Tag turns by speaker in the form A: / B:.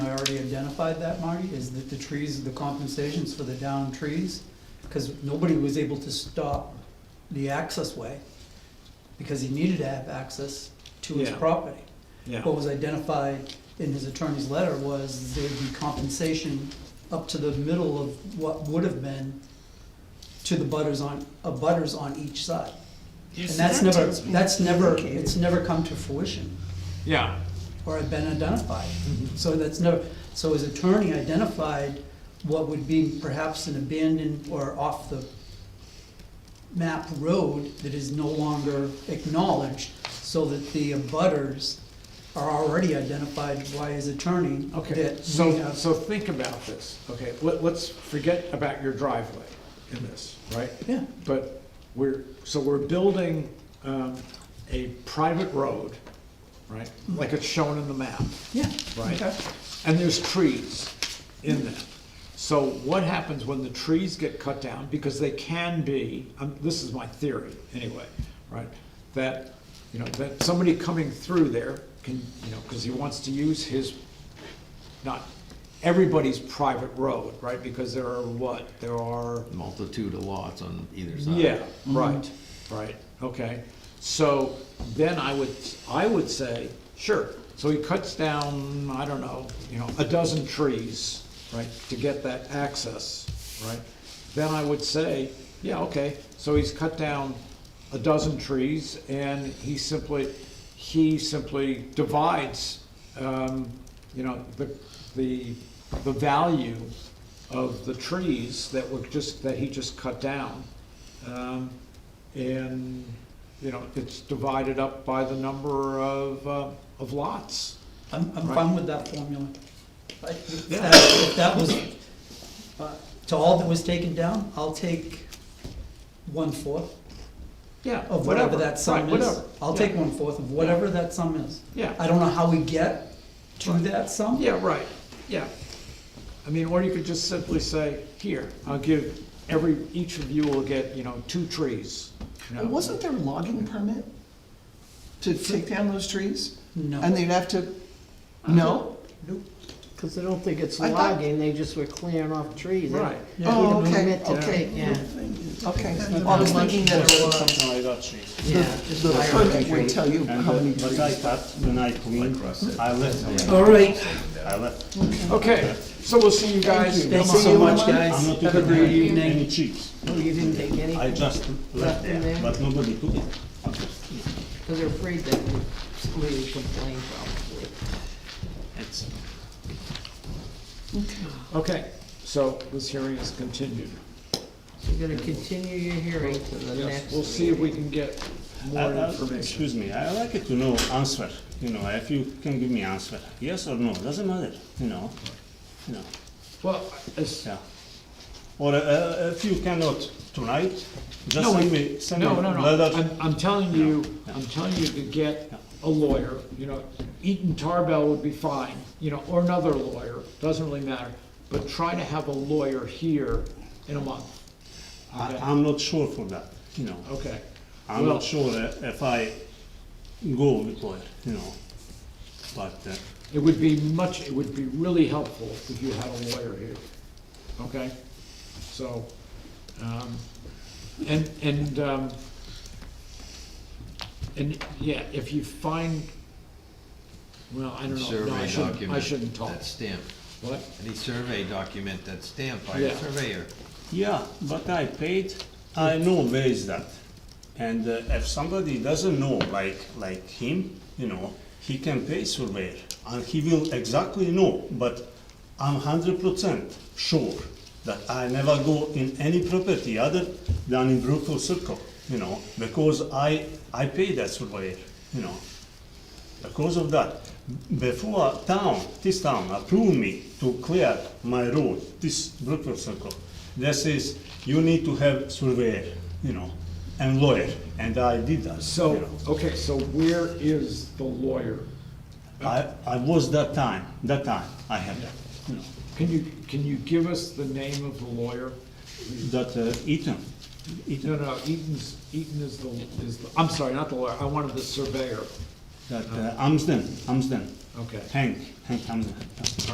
A: identified that, Marty, is that the trees, the compensations for the downed trees, because nobody was able to stop the access way, because he needed to have access to his
B: Yeah.
A: property.
B: yeah.
A: What was identified in his attorney's letter was there'd be compensation up to the middle of what would have been to the butters on, uh, butters on each side. And that's never, that's never, it's never come to fruition
B: Yeah,
A: or have been identified.
B: Mm-hmm.
A: So that's never, so his attorney identified what would be perhaps an abandoned or off the map road that is no longer acknowledged, so that the abutters are already identified by his attorney.
B: okay,
A: that we
B: so,
A: have-
B: so think about this, okay, let, let's forget about your driveway in this, right?
A: Yeah,
B: But we're, so we're building, um, a private road, right, like it's shown in the map,
A: yeah.
B: right?
A: okay.
B: And there's trees in there. So what happens when the trees get cut down, because they can be, um, this is my theory, anyway, right? That, you know, that somebody coming through there can, you know, because he wants to use his, not everybody's private road, right? Because there are what, there are
C: Multitude of lots on either side.
B: yeah, right, right, okay. So then I would, I would say, sure, so he cuts down, I don't know, you know, a dozen trees, right, to get that access, right? Then I would say, yeah, okay, so he's cut down a dozen trees and he simply, he simply divides, um, you know, the, the, the value of the trees that were just, that he just cut down. Um, And, you know, it's divided up by the number of, uh, of lots.
A: I'm, I'm
B: Right.
A: fine with that formula. I- If
B: Yeah.
A: that- if that was, uh, to all that was taken down, I'll take one-fourth.
B: Yeah.
A: of whatever that
B: right,
A: sum is.
B: whatever.
A: I'll
B: Yeah.
A: take one-fourth of whatever that sum is. I
B: Yeah,
A: don't know how we get to that sum.
B: yeah, right, yeah. I mean, or you could just simply say, here, I'll give, every, each of you will get, you know, two trees. you know.
D: Well, Wasn't there a logging permit to take down those trees? And
A: No,
D: they'd have to, no?
E: Because I don't think it's
D: I thought-
E: logging, they just were clearing off trees.
B: Right.
A: Yeah.
D: Oh,
E: We
D: okay,
E: meant to
D: okay,
E: take, yeah,
D: okay. I was thinking that it was,
F: Something like that, Chief.
E: yeah. just
D: the
E: fire
D: permit
E: trees.
D: would tell you
F: And
D: how many
F: but but I
D: trees.
F: cut, when I cleaned, I left,
A: all right,
F: I left.
B: Okay, so we'll see you guys.
A: thank
B: Come
A: you
B: on.
A: so much,
F: I'm
A: guys.
F: not
A: Have a
F: taking
A: great
F: any-
A: evening.
F: Any chips.
E: Oh, you didn't take
F: I
E: anything,
F: just left
E: in
F: there,
E: there?
F: but nobody took it.
E: because they're afraid that somebody would complain probably.
C: It's-
B: Okay, so this hearing is continued.
E: So you're gonna continue your hearing to the
B: Yes,
E: next.
B: we'll see if we
E: meeting.
B: can get
F: I-
B: more
F: I-
B: information.
F: Uh, Excuse me, I like it to know answer, you know, if you can give me answer, yes or no, doesn't matter, you know, you know,
B: Well, it's,
F: yeah. Or uh, if you cannot tonight, just
B: No,
F: send me, send me
B: No, no, no,
F: letter.
B: I'm, I'm telling you, I'm telling you to get a lawyer, you know, Eaton Tarbell would be fine, you know, or another lawyer, doesn't really matter, but try to have a lawyer here in a month,
F: I- I'm not sure for that, you know.
B: okay?
F: I'm
B: Well-
F: not sure i- if I go with lawyer, you know, but, uh,
B: It would be much, it would be really helpful if you had a lawyer here, okay? So, um, and, and, um, and, yeah, if you find, well, I don't know, no, I
C: Survey
B: shouldn't, I
C: document
B: shouldn't talk.
C: That stamp,
B: What?
C: any survey document that's stamped by a
B: Yeah.
C: surveyor.
F: yeah, but I paid, I know where is that. And uh, if somebody doesn't know, like, like him, you know, he can pay surveyor, and he will exactly know, but I'm hundred percent sure that I never go in any property other than in Brookfield Circle, you know, because I, I pay that surveyor, you know. Because of that, before town, this town approved me to clear my road, this Brookfield Circle, they says, you need to have surveyor, you know, and lawyer, and I did that. you
B: So,
F: know.
B: okay, so where is the lawyer?
F: I, I was that time, that time, I had that, you know,
B: Can you, can you give us the name of the lawyer?
F: that uh, Eaton,
B: No,
F: Eaton,
B: no, Eaton's, Eaton is the, is, the- I'm sorry, not the lawyer, I wanted the surveyor,
F: that uh, Amsden, Amsden,
B: okay.
F: Hank, Hank Amsden.